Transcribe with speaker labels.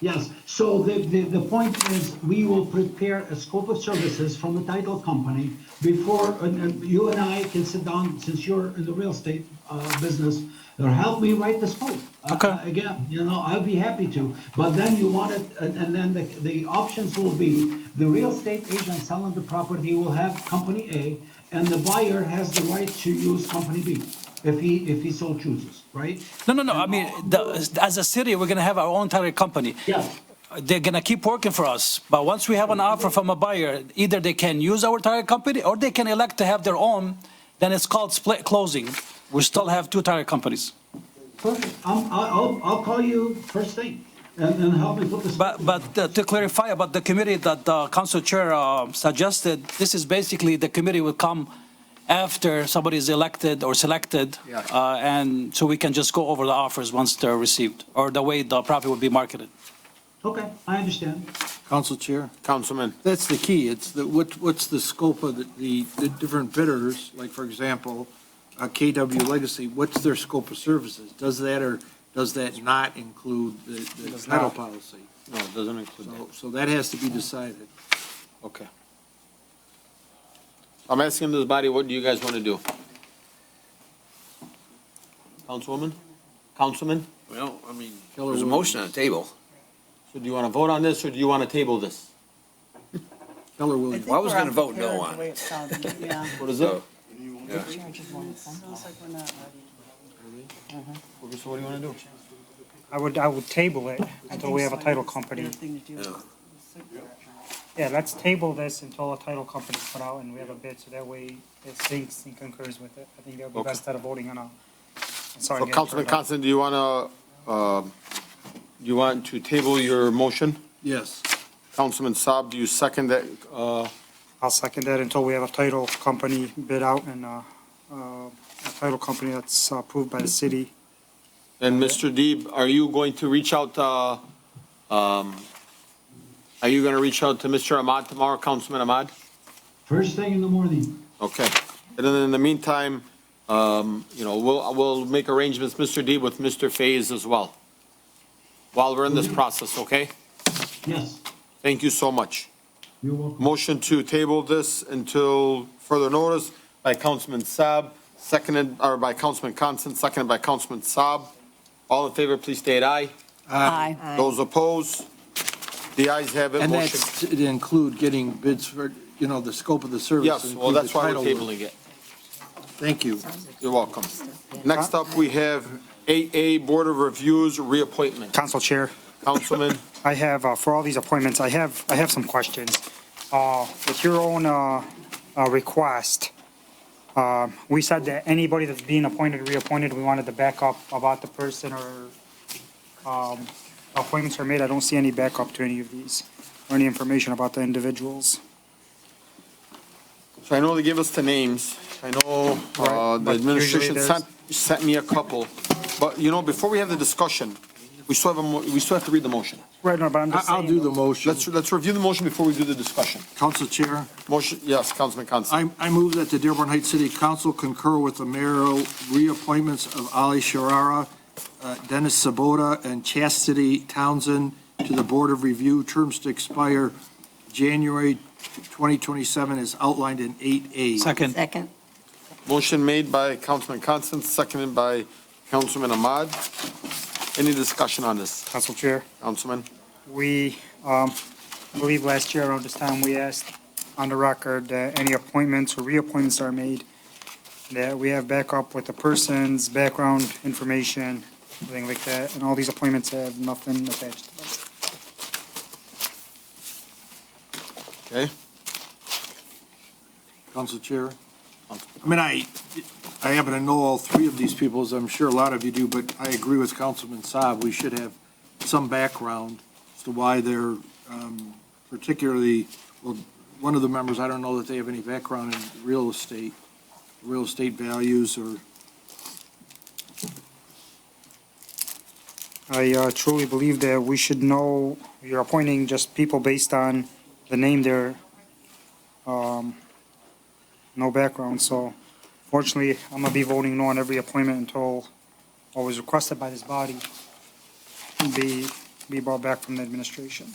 Speaker 1: Yes, so the, the, the point is, we will prepare a scope of services from the title company before, and, and you and I can sit down, since you're in the real estate, uh, business, or help me write the scope. Uh,
Speaker 2: Okay.
Speaker 1: Again, you know, I'd be happy to, but then you want it, and, and then the, the options will be, the real estate agent selling the property will have company A, and the buyer has the right to use company B, if he, if he so chooses, right?
Speaker 2: No, no, no, I mean, the- as a city, we're gonna have our own title company.
Speaker 1: Yes.
Speaker 2: They're gonna keep working for us, but once we have an offer from a buyer, either they can use our title company or they can elect to have their own, then it's called split closing. We still have two title companies.
Speaker 1: Perfect. I'm, I- I'll, I'll call you first thing and, and help me put this.
Speaker 2: But, but uh, to clarify about the committee that the council chair uh, suggested, this is basically the committee will come after somebody is elected or selected.
Speaker 3: Yeah.
Speaker 2: uh, And so we can just go over the offers once they're received, or the way the property will be marketed.
Speaker 1: Okay, I understand.
Speaker 4: Council Chair,
Speaker 3: Councilman.
Speaker 4: that's the key. It's the, what, what's the scope of the, the, the different bidders? Like, for example, uh, KW Legacy, what's their scope of services? Does that or does that not include the, the title policy?
Speaker 3: No, it doesn't include
Speaker 4: So, so that has to be decided.
Speaker 3: Okay. I'm asking this body, what do you guys want to do? Councilwoman? Councilman?
Speaker 5: Well, I mean,
Speaker 4: Keller
Speaker 5: there's a
Speaker 4: Williams.
Speaker 5: motion on the table.
Speaker 3: So do you want to vote on this or do you want to table this?
Speaker 4: Keller
Speaker 6: I
Speaker 4: Williams.
Speaker 6: think
Speaker 5: was
Speaker 6: we're
Speaker 5: gonna vote no
Speaker 6: unprepared the
Speaker 5: on
Speaker 6: way it's sounding, yeah.
Speaker 3: What is it?
Speaker 5: So- Yeah.
Speaker 6: Sounds like we're not ready.
Speaker 3: So what do you want to do?
Speaker 7: I would, I would table it until we have a title company. Yeah, let's table this until a title company's put out and we have a bid, so that way it syncs and concurs with it. I think that would be
Speaker 3: Okay.
Speaker 7: best out of voting on a.
Speaker 3: So Councilman Constant, do you want to, you want to table your motion?
Speaker 4: Yes.
Speaker 3: Councilman Saab, do you second that? uh,
Speaker 7: I'll second that until we have a title company bid out and, uh, uh, a title company that's approved by the city.
Speaker 3: And Mr. Deeb, are you going to reach out, uh, um, are you going to reach out to Mr. Ahmad tomorrow, Councilman Ahmad?
Speaker 1: First thing in the morning.
Speaker 3: Okay. And then in the meantime, um, you know, we'll, we'll make arrangements, Mr. D, with Mr. Faze as well, while we're in this process, okay?
Speaker 1: Yes,
Speaker 3: Thank you so much.
Speaker 1: you're welcome.
Speaker 3: Motion to table this until further notice by Councilman Saab, seconded, or by Councilman Constant, seconded by Councilman Saab. All in favor, please state aye.
Speaker 6: Aye.
Speaker 3: Those opposed? The ayes have it,
Speaker 4: And
Speaker 3: motion.
Speaker 4: that's to include getting bids for, you know, the scope of the service.
Speaker 3: Yes, well,
Speaker 4: include the
Speaker 3: that's why we're
Speaker 4: title work.
Speaker 3: tabling it.
Speaker 4: Thank you.
Speaker 3: You're welcome. Next up, we have 8A Board of Reviews reappointment.
Speaker 7: Council Chair.
Speaker 3: Councilman?
Speaker 7: I have, uh, for all these appointments, I have, I have some questions. Uh, With your own uh, uh, request, um, we said that anybody that's being appointed, reappointed, we wanted the backup about the person or um, appointments are made. I don't see any backup to any of these or any information about the individuals.
Speaker 3: So I know they gave us the names. I know uh,
Speaker 7: Right,
Speaker 3: the
Speaker 7: but usually
Speaker 3: administration
Speaker 7: there's-
Speaker 3: sent, sent me a couple. But, you know, before we have the discussion, we still have, a mo- we still have to read the motion.
Speaker 7: Right, no, but I'm
Speaker 4: I-
Speaker 7: just
Speaker 4: I'll do
Speaker 7: saying,
Speaker 4: the motion.
Speaker 3: Let's, let's review the motion before we do the discussion.
Speaker 4: Council Chair.
Speaker 3: Motion, yes, Councilman Constant.
Speaker 4: I, I move that the Dearborn Heights City Council concur with the mayoral reappointments of Ali Sharara, uh, Dennis Sabota, and Chastity Townsend to the Board of Review, terms to expire January 2027 as outlined in 8A.
Speaker 2: Second.
Speaker 6: Second.
Speaker 3: Motion made by Councilman Constant, seconded by Councilman Ahmad. Any discussion on this,
Speaker 7: Council Chair.
Speaker 3: Councilman?
Speaker 7: We, um, I believe last year around this time, we asked on the record that any appointments or reappointments are made, that we have backup with the person's background information, everything like that, and all these appointments have nothing attached to them.
Speaker 3: Okay?
Speaker 4: Council Chair. I mean, I, I happen to know all three of these people, as I'm sure a lot of you do, but I agree with Councilman Saab. We should have some background as to why they're um, particularly, well, one of the members, I don't know that they have any background in real estate, real estate values or
Speaker 7: I uh, truly believe that we should know, you're appointing just people based on the name there, um, no background, so fortunately, I'm gonna be voting no on every appointment until, or was requested by this body, be be brought back from the administration.